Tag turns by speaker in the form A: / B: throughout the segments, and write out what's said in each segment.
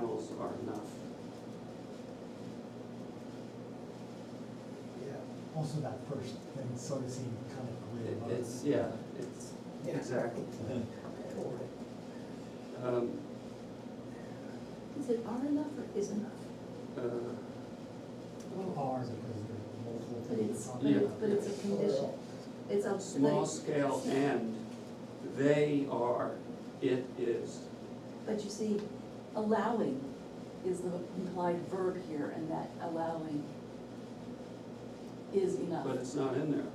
A: far enough.
B: Yeah,
C: Also that first thing sort of seemed kind of
A: It-
C: weird. but-
A: It's, yeah, it's,
B: Yeah.
A: exactly.
B: totally.
A: Um,
D: Is it R enough or is enough?
A: uh,
C: A little hard because there are multiple
D: But it's,
C: things.
D: but
C: on it.
D: it's, but it's a condition. It's a.
A: Small
D: but-
A: scale and, they are, it is.
D: But you see, allowing is the implied verb here, and that allowing is enough.
A: But it's not in there.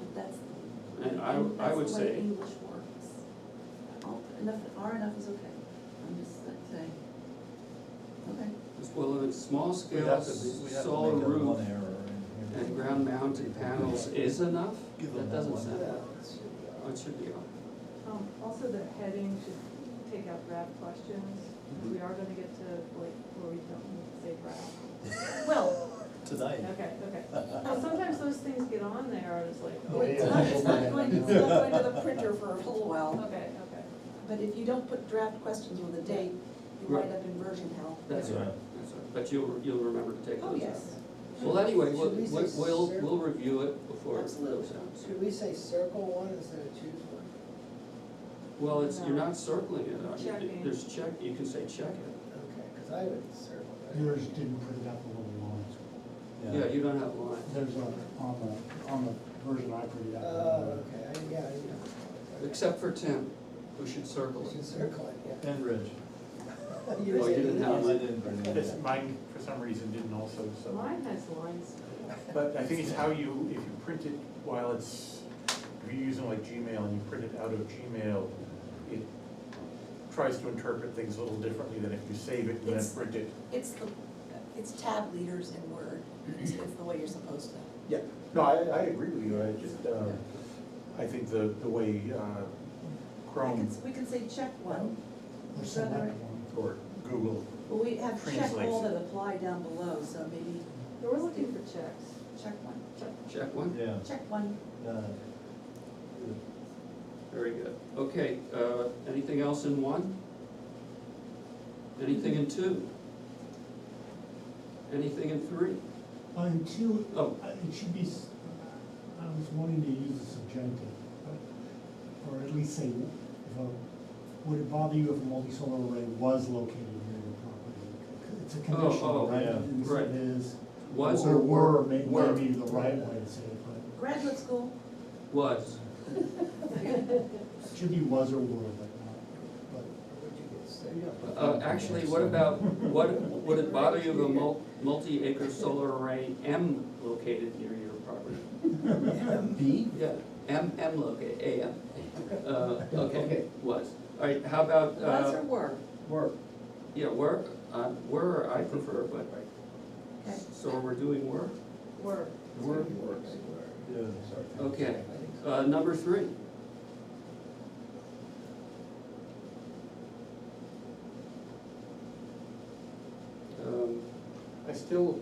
D: But that's,
A: And I,
D: and
A: I
D: that's
A: would
D: the way
A: say,
D: English works. All- Enough, R enough is okay, I'm just saying. Okay,
A: well, in small
E: We'd
A: scale,
E: have to, be- we'd have to
A: solar
E: make that one
A: roof
E: error in here.
A: and ground mounted panels is enough?
E: Give them
A: That
E: that
A: doesn't
E: one.
A: sound,
B: Yeah.
A: oh, it should be on.
F: Um, also the heading should take out draft questions,
G: Mm-hmm.
F: we are gonna get to like, where we don't need to say draft.
D: well,
E: Tonight.
F: Okay, okay, Well, sometimes those things get on there, and it's like, oh,
B: Well,
F: okay,
B: It's not, it's not going, it's not going to the printer for a little while,
F: okay.
D: but if you don't put draft questions with a date, you wind up in version hell.
A: That's
E: Yeah.
A: right, that's right, but you'll, you'll remember to take those out.
D: Oh, yes,
A: Well, anyway, we'll,
B: Should we
A: we'll,
B: say
A: we'll
B: cer-
A: we'll review it before it
D: Absolutely.
A: goes out.
B: Should we say circle one instead of choose one?
A: Well, it's, you're
F: No.
A: not circling it, I mean,
F: Checking.
A: there's check, you can say check it.
B: Okay, because I would circle that.
C: Yours didn't put it up a little long.
A: Yeah, you don't have lines.
C: There's a, on the, on the version I printed out.
B: Oh, okay, I- yeah, I know.
A: Except for Tim, who should circle
B: We should
A: it.
B: circle it, yeah.
E: And Ridge.
B: You're
A: Oh, you
B: saying
A: didn't have
B: yes.
E: I didn't bring it.
G: This, mine, for some reason, didn't also, so,
F: Mine has lines,
G: but I think it's how you, if you print it while it's, if you're using like Gmail and you print it out of Gmail, it tries to interpret things a little differently than if you save it and then
D: It's-
G: print it.
D: it's the, it's tab leaders in Word, it's it's the way you're supposed to.
G: Yeah, no, I, I agree with you, I just, um, I think the, the way uh,
D: We
G: Chrome
D: could, we could say check one,
C: Or select one.
G: or Google,
D: but we have check all
G: Translation.
D: that apply down below, so maybe
F: we're looking for checks.
D: check one,
A: Check one,
E: Yeah.
D: check one.
E: uh,
A: very good. Okay, uh, anything else in one? Anything in two? Anything in three?
C: Uh, and two,
A: Oh.
C: uh, it should be, s- I was wanting to use a subjunctive, but- or at least say, if a, would it bother you if a multi-solar array was located near your property? It's a
A: oh,
C: condition, right?
E: yeah,
C: And so
A: right.
C: It is.
A: Was
C: Or
A: or
C: were,
A: were?
C: may-
A: were.
C: maybe the right way to say it, but
D: Graduate school,
A: Was,
C: it should be was or were, but not, but.
B: Would you get sick?
A: uh, actually, what about, what, would it bother you if a mul- multi-acre solar array M located near your property?
E: B?
A: Yeah, M, M locate, A M. Uh, okay, was. All right, how about,
D: was or
A: uh,
D: were?
B: Work.
A: yeah, were, uh, were, I prefer, but,
D: Okay.
A: so we're doing were.
F: Word,
B: Work.
G: uh,
E: Yeah.
A: Okay, uh, number three. Um,
G: I still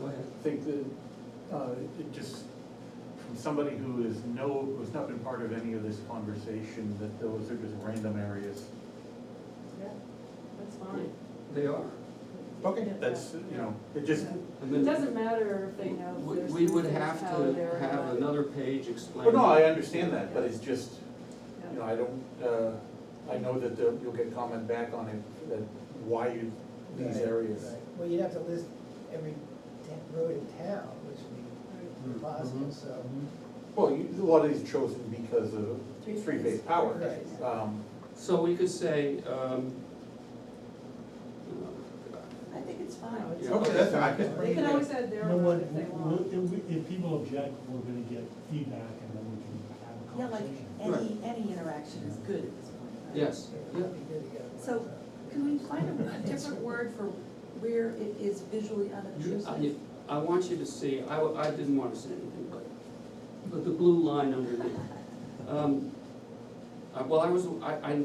A: go ahead.
G: think that, uh, it just, from somebody who is no, who's not been part of any of this conversation, that those are just random areas.
F: yeah, that's fine.
A: They are.
F: Yeah,
G: That's,
F: yeah,
G: you know, it just,
A: I
F: yeah. It
A: mean,
F: doesn't matter if they know
A: we-
F: there's.
A: We would
F: three things
A: have
F: out
A: to
F: there,
A: have
F: but-
A: another page explaining.
G: well, no, I understand that, but it's just,
F: yeah.
G: you know, I don't, uh, I know that the- you'll get comment back on it, that why you, these areas.
B: Well, you'd have to list every ta- road in town, which
A: Mm-hmm.
B: would be impossible,
C: Mhm.
B: so.
G: Well, you, a lot of these chosen because of
D: Three
G: three-phase
D: phase.
G: power.
B: Right.
G: Um,
A: So we could say, um, uh,
D: I think it's fine.
B: No, it's-
A: Yeah. Okay,
G: that's fine. I can
F: They can always add their
C: You know
F: word
C: what,
F: if they
C: we'll-
F: want.
C: if, we- if people object, we're gonna get feedback and then we can have a
D: Yeah, like,
C: conversation.
D: any, any interaction is good at this point. right?
A: yes, yeah.
B: It'd be good to get a-
D: So, Can we find a different word for where it is visually
A: You- I-
D: unobtrusive?
A: you- I want you to see, I, w- I didn't wanna say anything, but, but the blue line underneath. Um, I- Well, I was, I, I,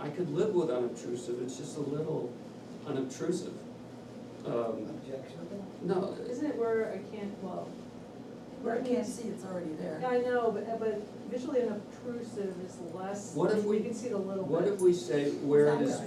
A: I could live with unobtrusive, it's just a little unobtrusive. Um,
B: Objectionable?
A: No,
F: Isn't it where I can't, well.
D: Where I can't see, it's already there.
F: I know, but, but visually unobtrusive is less.
A: What if we-
F: You can see it a little bit.
A: what if we say where it is